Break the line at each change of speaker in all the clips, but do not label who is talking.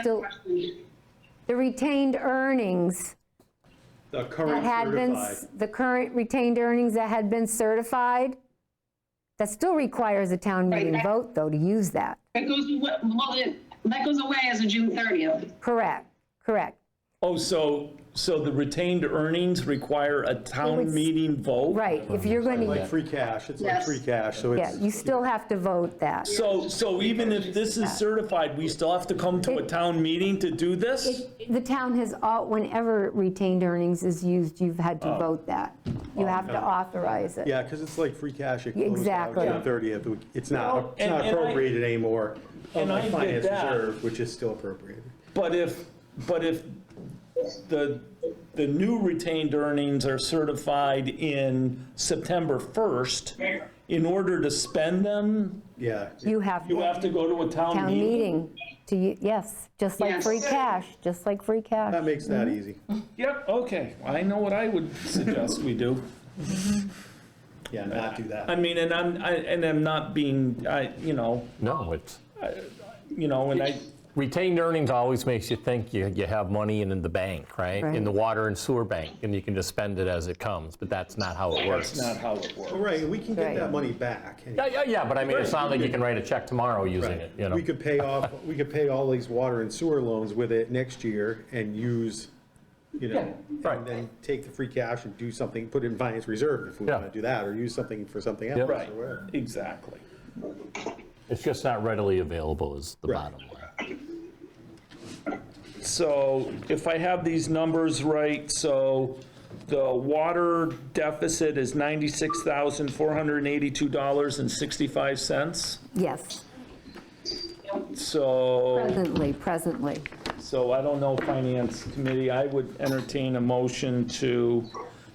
still, the retained earnings
The
that
current
had been,
certified.
s- the current retained earnings that had been certified, that still requires a town
Right,
meeting
that-
vote, though, to use that.
That goes, awa- well, it- that goes away as of June 30th.
Correct, correct,
Oh, so, so the retained earnings require a town
would s-
meeting vote?
right. If you're going
Like
to,
free cash, it's like
Yes.
free cash, so
yeah,
it's,
you still have to vote that.
So, so even if this is certified, we still have to come to a town meeting to do this?
The town has, all whenever retained earnings is used, you've had to vote that. You have to authorize it.
Oh. yeah, because it's like free cash, it closed out
Exactly.
June 30th, it's
Well,
not, it's
and-
not
and I-
appropriated anymore,
and I
unlike
get
finance
that.
reserve, which is still appropriated.
But if, but if the, the new retained earnings are certified in September 1st, in order to spend them,
Yeah,
You have
you
to,
have to go to a town
town
meeting?
meeting, to, u- yes, just like free
Yes.
cash, just like free cash.
that makes that
Mm-hmm.
easy,
Yep, okay, I know what I would suggest we do.
yeah, not do that.
I mean, and I'm, I- and I'm not being, I, you know,
No, it's,
you know, and I,
retained earnings always makes you think you, you have money in the bank, right? In the water and sewer bank, and you can just spend it as it comes, but that's not how it
that's
works.
not how it works.
All Right, we can get
Right.
that money back. anyway.
Yeah, yeah, yeah, but I mean, it's not like you can write a check tomorrow using it, you know?
We could pay off, we could pay all these water and sewer loans with it next year and use, you know,
right.
and then take the free cash and do something, put it in finance reserve if we
Yeah.
want to do that, or use something for something else. or
Right,
whatever.
exactly.
It's just not readily available is the
Right.
bottom line.
So if I have these numbers right, so the water deficit is $96,482.65.
Yes,
So,
presently, presently.
so I don't know, Finance Committee, I would entertain a motion to,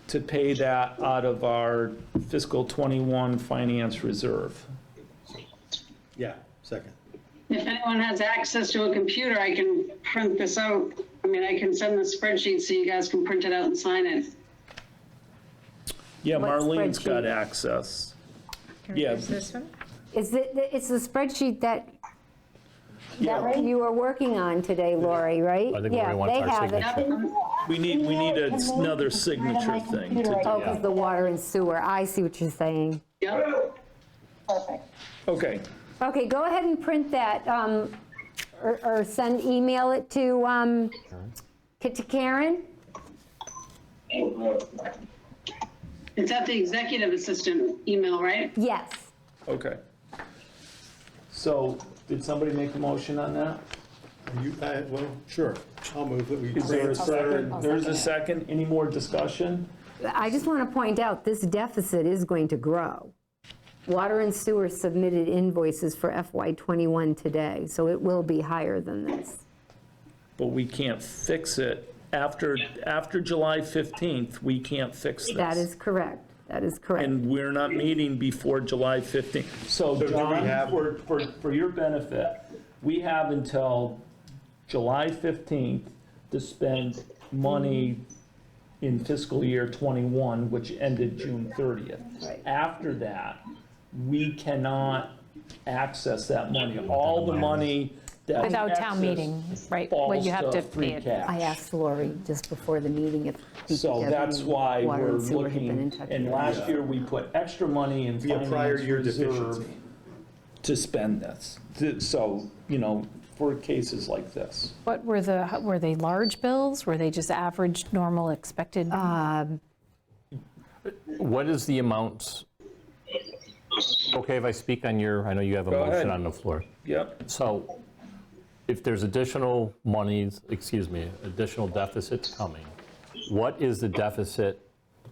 to pay that out of our fiscal '21 finance reserve.
Yeah, second.
If anyone has access to a computer, I can print this out. I mean, I can send the spreadsheet so you guys can print it out and sign it.
Yeah,
What
Marlene's got
spreadsheet?
access. Yeah,
Is it, it's the spreadsheet that, that you were working on today, Lori, right?
I think Lori wants our
Yeah, they have it.
signature.
we need, we need another signature thing to
Oh, because the water and sewer, I see what you're saying.
Yep.
Okay,
Okay, go ahead and print that, um, or or send, email it to, um, K- to Karen?
It's at the executive assistant email, right?
Yes.
okay. So, did somebody make a motion on that?
You, I, well, sure, I'll move that we.
Is there a
second?
second? There's a second, any more discussion?
I just want to point out, this deficit is going to grow. Water and sewer submitted invoices for FY '21 today, so it will be higher than this.
But we can't fix it after, after July 15th, we can't fix this.
That is correct, that is correct.
And we're not meeting before July 15th. So
do we
John,
have-
for, for, for your benefit, we have until July 15th to spend money in fiscal year 21, which ended June 30th. After that, we cannot access that money. All the money that we
Without town
access
meeting, right, when
falls
you have to pay
free
it.
cash.
I asked Lori just before the meeting if.
So that's why
Water
we're
and sewer had been in
looking,
touch
and
with
last year, we put extra money in
Be a prior
finance
year
reserve
deficiency.
to spend this. Th- So, you know, for cases like this.
What were the, were they large bills? Were they just average, normal, expected?
What is the amounts? Okay, if I speak on your, I know you have a
Go ahead.
motion on the floor.
Yep,
So if there's additional monies, excuse me, additional deficits coming, what is the deficit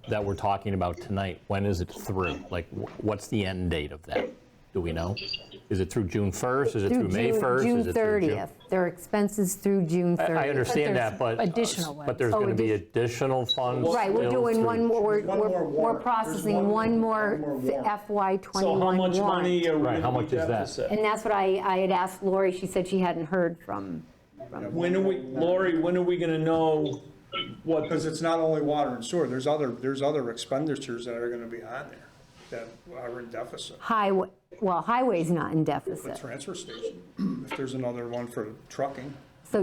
that we're talking about tonight? When is it through? Like, wh- what's the end date of that? Do we know? Is it through June 1st? Is it through May
June-
1st?
June
Is it through
30th. Their expenses through June 30th.
I understand
there's
that, but. uh,
additional ones.
But there's
Oh,
going to be
addi-
additional funds.
Right, we're
still
doing
through
one more, we're-
one more
we're
warrant.
we're
There's
processing
one-
one
one more
more
warrant.
FY
so how
'21
much money
warrant.
are we
Right, how
gonna
much is that?
deficit?
And that's what I, I had asked Lori, she said she hadn't heard from,
When are we, Lori, when are we gonna know what,
Because it's not only water and sewer, there's other, there's other expenditures that are gonna be on there that are in deficit.
highway, well, highway's not in
The
deficit.
transfer station, if there's another one for trucking,